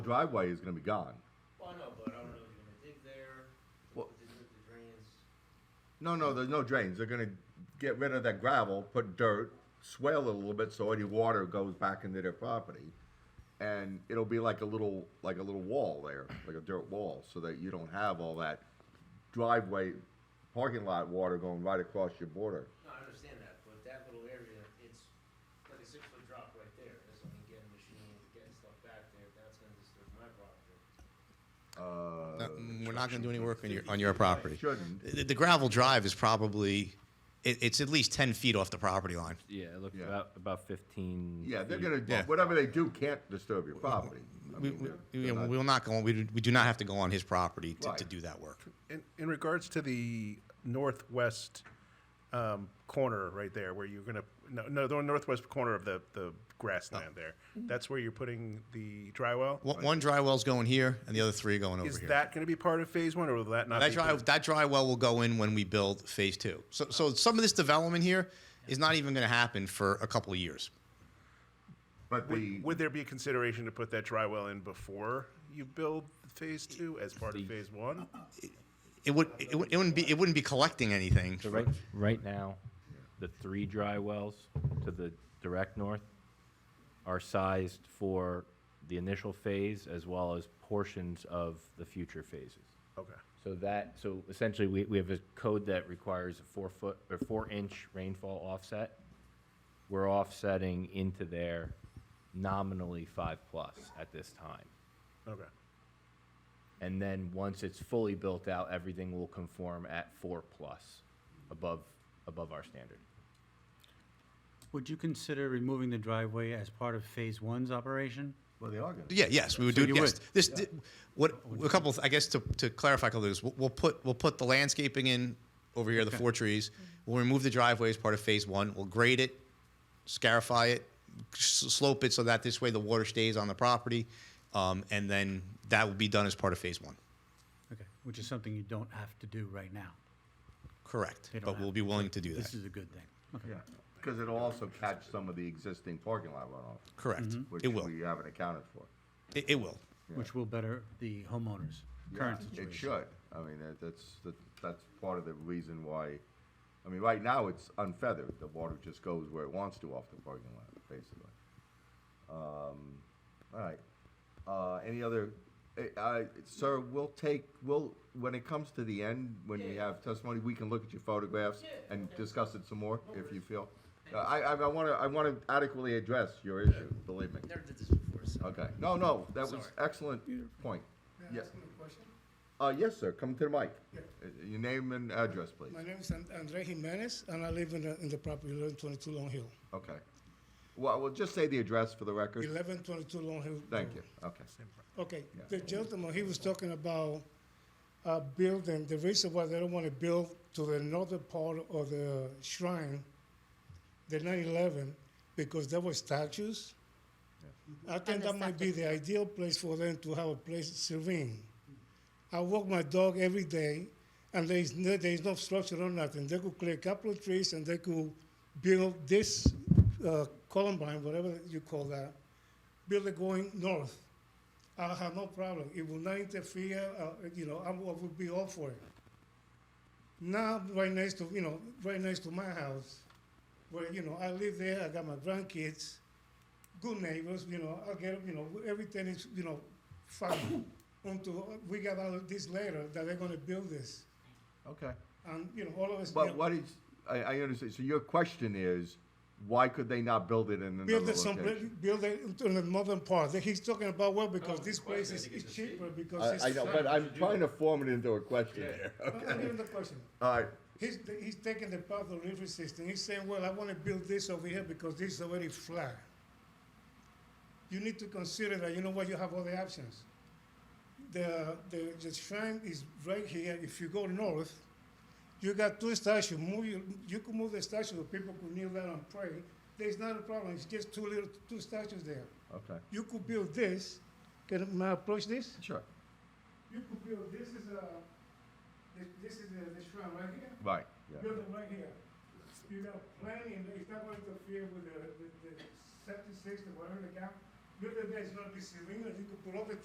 driveway is gonna be gone. Well, I know, but I don't know if you're gonna dig there, Well- with the, with the drains. No, no, there's no drains. They're gonna get rid of that gravel, put dirt, swale it a little bit so any water goes back into their property. And it'll be like a little, like a little wall there, like a dirt wall, so that you don't have all that driveway, parking lot water going right across your border. No, I understand that, but that little area, it's like a six foot drop right there, that's when you get a machine, getting stuff back there, that's gonna disturb my property. Uh, Uh, We're not going to do any work on your, on your property. Shouldn't. The the gravel drive is probably, it, it's at least 10 feet off the property line. Yeah, it looked Yeah. about about fifteen. Yeah, they're feet. gonna, Yeah. whatever they do can't disturb your property. I We, mean, we, they're- we they're not- will not go, on- we do, we do not have to go on his property to, to Right. do that work. In, in regards to the northwest um, corner right there, where you're gonna no no the northwest corner of the the grassland there, Oh. that's where you're putting the dry well. One one dry well's going here and the other three are going over Is here. that going to be part of phase one, or will that not? That be dry, part of- that dry well will go in when we build phase two. So, so some of this development here is not even going to happen for a couple of years. But the, Would there be a consideration to put that dry well in before you build phase two as part of phase one? It would, it would- it wouldn't be, it wouldn't be collecting anything. So right, right now, the three dry wells to the direct north are sized for the initial phase as well as portions of the future phases. Okay. So that, so essentially, we, we have a code that requires a four foot, or four inch rainfall offset. We're offsetting into there nominally five plus at this time. Okay. And then once it's fully built out, everything will conform at four plus above, above our standard. Would you consider removing the driveway as part of Phase One's operation? well, they are gonna. Yeah, yes, we would So do. you Yes, would? this thi- what a couple. Of, I guess to, to clarify a couple of this, we'll, we'll put we'll put the landscaping in over here, the four trees. We'll remove the driveway as part of phase one. We'll grade it, scarify it, s- slope it so that this way the water stays on the property, um, and then that will be done as part of phase one. Okay, which is something you don't have to do right now. Correct, They don't but have we'll be willing to do This that. is a good thing. Okay. Yeah, because it'll also catch some of the existing parking lot runoff. Correct, Mhm. which Mm-hmm. it will. we haven't accounted for. It, it will. Which will better the homeowners' current It situation. should. I mean, that, that's, that, that's part of the reason why, I mean, right now it's unfeathered. The water just goes where it wants to off the parking lot, basically. Um, all right. Uh, any other, eh, I, sir, we'll take, we'll, when it comes to the end, when we have testimony, we can look at your photographs and discuss it some more if you feel. Uh, I, I, I wanna, I wanna adequately address your issue, believe me. Never did this before, so. Okay, no, no, that was Sorry. excellent point. Yes. Uh, yes, sir, come to the mic. Uh, Your name and address, please. My name is An- Andre Jimenez, and I live in the, in the property 1122 Long Hill. Okay. Well, we'll just say the address for the record. 1122 Long Hill. Thank you, okay. Okay, the gentleman, he was talking about uh, building, the reason why they don't want to build to the northern part of the shrine, the 9/11, because there were statues. I think And the that might be septic. the ideal place for them to have a place serene. I walk my dog every day, and there is no, there is no structure or nothing. They could clear a couple of trees and they could build this uh, Columbine, whatever you call that, build it going north. I have no problem. It will not interfere. Uh, you know, I will I will be all for it. Now, right next to you know, right next to my house, where you know I live there. I got my grandkids, good neighbors. You know, I get you know everything is you know fine. Until we got out of this later that they're going to build this, Okay. and you know all of us. you But know, what is, I, I understand, so your question is, why could they not build it in another Build it someplace, location? build it in the northern part. He's talking about Oh, well because this place is, is cheaper because it's I, I know, but I'm trying to form it into a question here. I'm giving the question. All right, He's, he's taking the path of river system. He's saying, well, I want to build this over here because this is already flat. You need to consider that, you know what, you have other options. The, the, the shrine is right here. If you go north, you got two statues. Move you, you could move the statue so people could kneel down and pray. There's not a problem. It's just two little two statues there. okay, You could build this. Can may I approach this? sure, You could build this is a this, this is the, the shrine right here right, yeah, building right here. You got plenty, and it's not going to interfere with the, the, the septic system, whatever they got. Building there is gonna be serene, and you could put all the